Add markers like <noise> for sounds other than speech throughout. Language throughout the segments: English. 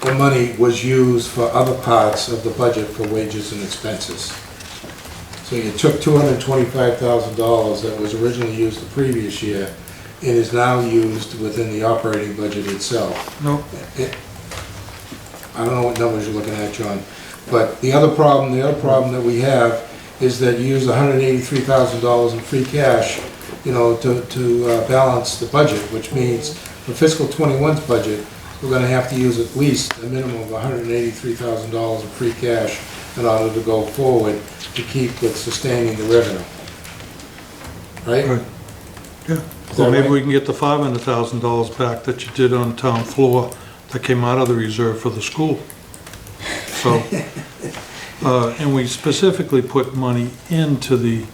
the money was used for other parts of the budget for wages and expenses. So you took two hundred and twenty-five thousand dollars that was originally used the previous year and is now used within the operating budget itself. No, It- I don't know what numbers you're looking at, John, but the other problem, the other problem that we have is that you use hundred and eighty-three thousand dollars in free cash, you know, to, to uh, balance the budget, which means for fiscal 21's budget, we're gonna have to use at least a minimum of hundred and eighty-three thousand dollars in free cash in order to go forward to keep with sustaining the revenue. Right? right, yeah. Is that Well, maybe right? we can get the five hundred thousand dollars back that you did on town floor that came out of the reserve for the school. <laughs> So, uh, and we specifically put money into the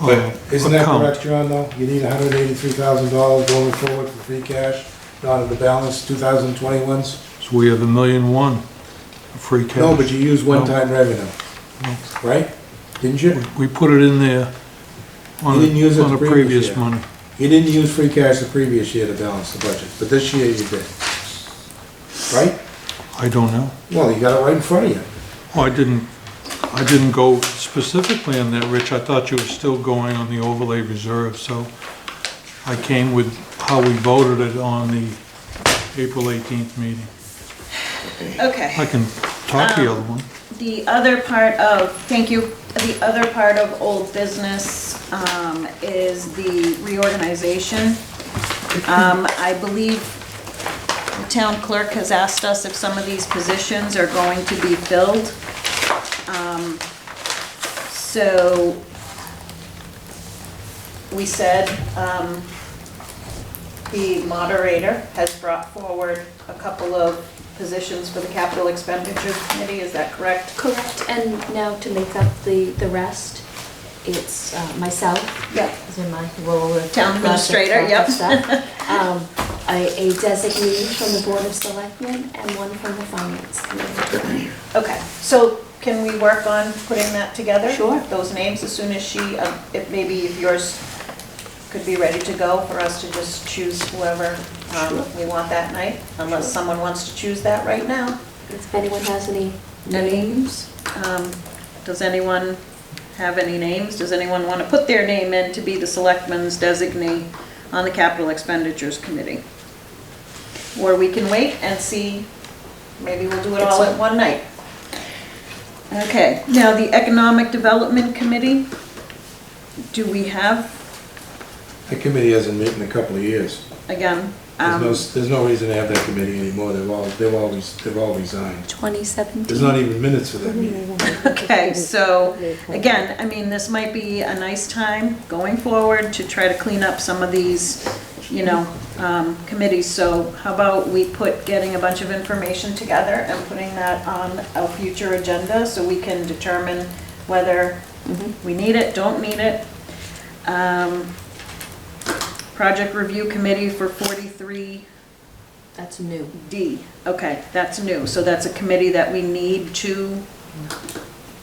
uh, Isn't that account. correct, John, though? You need hundred and eighty-three thousand dollars going forward for free cash, not in the balance, 2021's. So we have a million one free cash. No, but you use No. one-time revenue, No. right? Didn't you? We put it in there on, You didn't use it on a the previous previous year. money. You didn't use free cash the previous year to balance the budget, but this year you did. Right? I don't know. Well, you got it right in front of you. Oh, I didn't, I didn't go specifically on that, Rich. I thought you were still going on the overlay reserve, so I came with how we voted it on the April 18th meeting. Okay. I can talk the other one. The other part of, thank you, the other part of old business um, is the reorganization. Um, I believe the town clerk has asked us if some of these positions are going to be filled. Um, So we said um, the moderator has brought forward a couple of positions for the capital expenditure committee, is that correct? Correct, and now to make up the, the rest, it's uh, myself, Yeah. as in my role of. Town administrator, yep. yep. Um, a a designee from the Board of Selectmen and one from the Finance Committee. Okay, so can we work on putting that together? Sure. Those names, as soon as she, um, if maybe if yours could be ready to go for us to just choose whoever um, we want that night, unless someone wants to choose that right now. If anyone has any, Names? Um, Does anyone have any names? Does anyone want to put their name in to be the selectman's designee on the capital expenditures committee? Or we can wait and see, maybe we'll do it all at one night. Okay, now the economic development committee, do we have, That committee hasn't met in a couple of years. again, There's um, no, there's no reason to have that committee anymore. They've all, they've always, they've all resigned. 2017? There's not even minutes for that meeting. Okay, so, again, I mean, this might be a nice time going forward to try to clean up some of these, you know, um, committees. So how about we put getting a bunch of information together and putting that on a future agenda so we can determine whether Mm-hmm, we need it, don't need it. Um, Project Review Committee for 43 That's new. D, okay, that's new, so that's a committee that we need to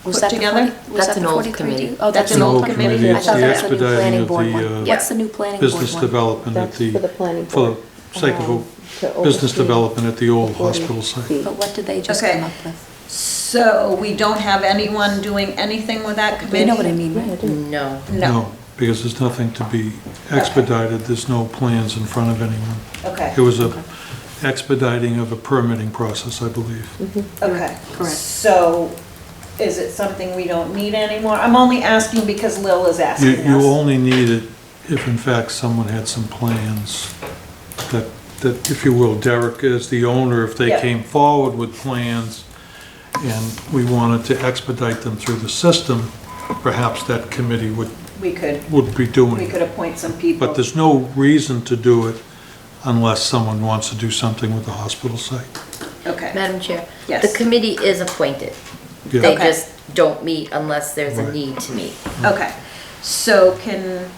Was put that the together? 40 was That's that the an old 43? committee. Oh, that's It's an old committee. committee. I It's thought the that was the new expediting planning of board the, one. uh, What's the new planning board one? business development at Um, That's for the the, planning for board. the sake um, of, to a- business oversee development at the old hospital 40 site. Oh, But what did they just Okay. come up with? So we don't have anyone doing anything with that Do committee? you know what I mean, right? No. No, Because there's nothing to be expedited, there's no plans in front of anyone. okay, It was a expediting of a permitting process, I believe. okay. Correct. So is it something we don't need anymore? I'm only asking because Lil is You, asking you us. only need it if in fact someone had some plans that, that, if you will, Derek is the owner, if they Yeah. came forward with plans and we wanted to expedite them through the system, perhaps that committee would, We could, would be doing we it. could appoint some people. But there's no reason to do it unless someone wants to do something with the hospital site. Okay, Madam Chair? Yes. The committee is appointed. Yeah. They Okay. just don't meet unless there's a Right. need to meet. okay. So can,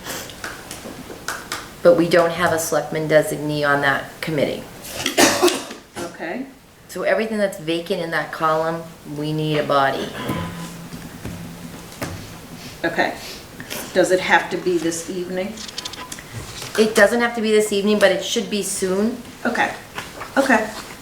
But we don't have a selectman designee on that committee. okay, So everything that's vacant in that column, we need a body. okay. Does it have to be this evening? It doesn't have to be this evening, but it should be soon. Okay, okay.